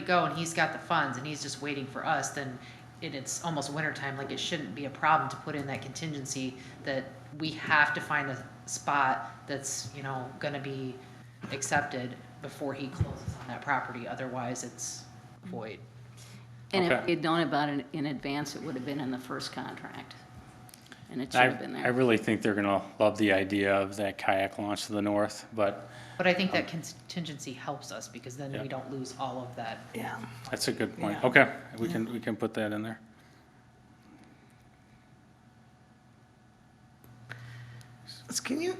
go and he's got the funds and he's just waiting for us, then and it's almost wintertime, like it shouldn't be a problem to put in that contingency that we have to find a spot that's, you know, gonna be accepted before he closes on that property, otherwise it's void. And if Okay. we'd known about it in advance, it would have been in the first contract. And it should I, have been I there. really think they're gonna love the idea of that kayak launch to the north, but But I think that contingency helps us because then Yeah. we don't lose all of that. Yeah. that's a good point. Yeah. Okay, we can, we can put that in there. So Can you,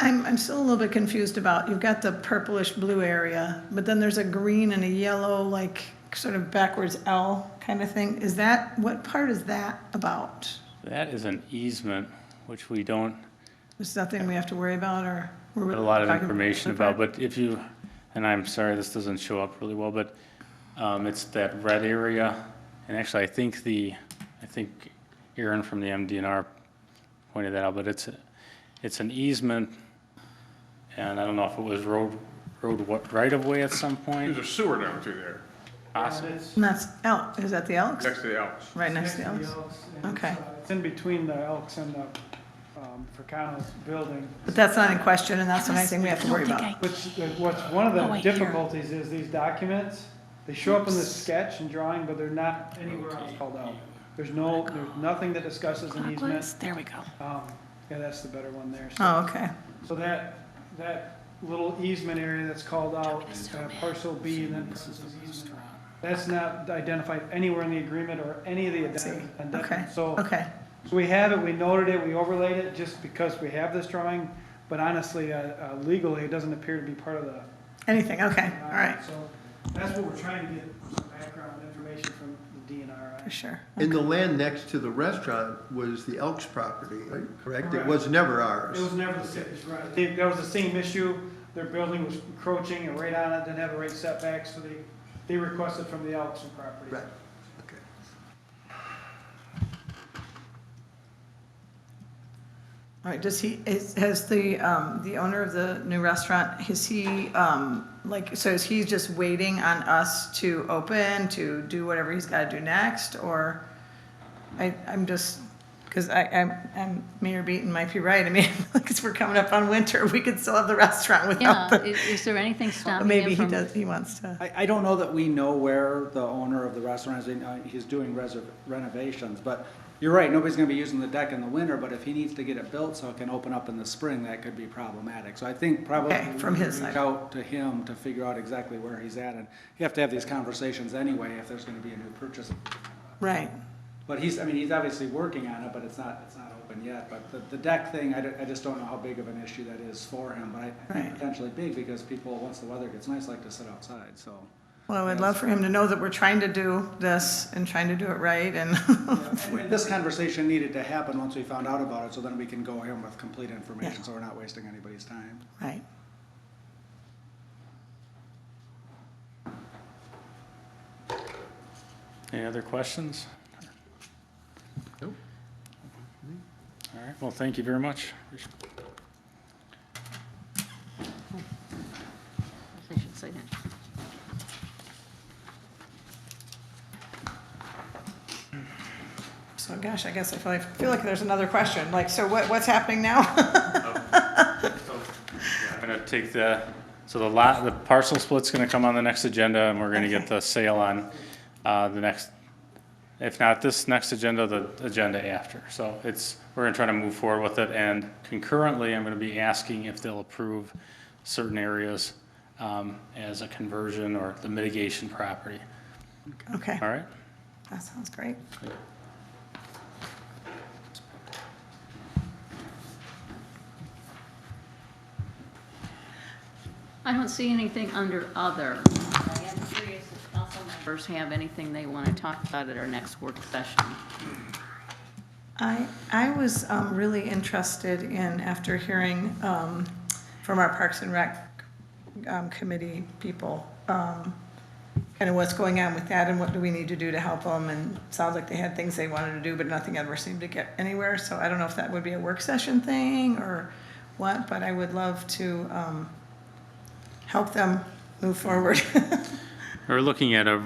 I'm, I'm still a little bit confused about, you've got the purplish blue area, but then there's a green and a yellow, like, sort of backwards L kind of thing. Is that, what part is that about? That is an easement, which we don't Is that thing we have to worry about, or? we're have a lot of talking information the part- about, but if you, and I'm sorry, this doesn't show up really well, but um, it's that red area, and actually, I think the, I think Aaron from the MDNR pointed that out, but it's, it's an easement, and I don't know if it was road, road what- right-of-way at some point, There's a sewer down through there, possibly. And that's L, is that the Elks? next to the Alps. Right next to the Next Elks? and it's, Okay. uh, It's in between the Elks and the um, Fracano's building, But that's not in question, and that's not anything we have to worry about. which, what's, one of Oh, the wait, here. difficulties is these documents, they show up in the sketch and drawing, but they're not anywhere else called out. There's no, there's nothing that discusses an Clockwise, easement. there we go. Um, Yeah, that's the better one there. So- Oh, okay. So that, that little easement area that's called out, uh, parcel B and then parcel easement, that's not identified anywhere in the agreement or any of the See, addendum. okay, addendum. So okay. so we have it, we noted it, we overlaid it just because we have this drawing, but honestly, uh, uh, legally, it doesn't appear to be part of the. Anything, okay, all right, So that's what we're trying to get some background information from the DNR. for sure. And the land next to the restaurant was the Elks property, correct? It Correct. was never It ours. was never the city's right. They- That was the same issue. Their building was encroaching and right on it, didn't have a right setback, so they, they requested from the Elkson property. Right, okay. All right, does he, is, has the, um, the owner of the new restaurant, is he, um, like, so is he just waiting on us to open, to do whatever he's gotta do next, or? I, I'm just, cause I, I'm, I'm, Mayor Beaton might be right, I mean, cause we're coming up on winter, we could still have the restaurant without Yeah, i- the. is there anything But stopping Maybe him he from? does, he wants to, I, I don't know that we know where the owner of the restaurant is, I know he's doing reser- renovations, but you're right, nobody's gonna be using the deck in the winter, but if he needs to get it built so it can open up in the spring, that could be problematic. So I think probably Okay, from we his reach side. Out to him to figure out exactly where he's at, and you have to have these conversations anyway if there's gonna be a new purchase. right, But he's, I mean, he's obviously working on it, but it's not, it's not open yet, but the, the deck thing, I, don't- I just don't know how big of an issue that is for him, but I, I Right. think potentially big, because people, once the weather gets nice, like to sit outside, so. well, I would love for him to know that we're trying to do this and trying to do it right and. And This conversation needed to happen once we found out about it, so then we can go in with complete Yeah. information, so we're not wasting anybody's time. Right. Any other questions? Nope. All right, well, thank you very much. I should say that. So gosh, I guess I feel like, feel like there's another question, like, so what, what's happening now? I'm gonna take the, so the lot, the parcel split's gonna come on the next agenda, and we're gonna get Okay. the sale on, uh, the next, if not this next agenda, the agenda after. So it's, we're gonna try to move forward with it, and concurrently, I'm gonna be asking if they'll approve certain areas, um, as a conversion or the mitigation property, Okay, all right? that sounds great. I don't see anything under other. I am curious if council members have anything they want to talk about at our next work session. I, I was um, really interested in, after hearing um, from our Parks and Rec um, Committee people, um, kind of what's going on with that and what do we need to do to help them, and sounds like they had things they wanted to do, but nothing ever seemed to get anywhere, so I don't know if that would be a work session thing or what, but I would love to um, help them move forward. We're looking at a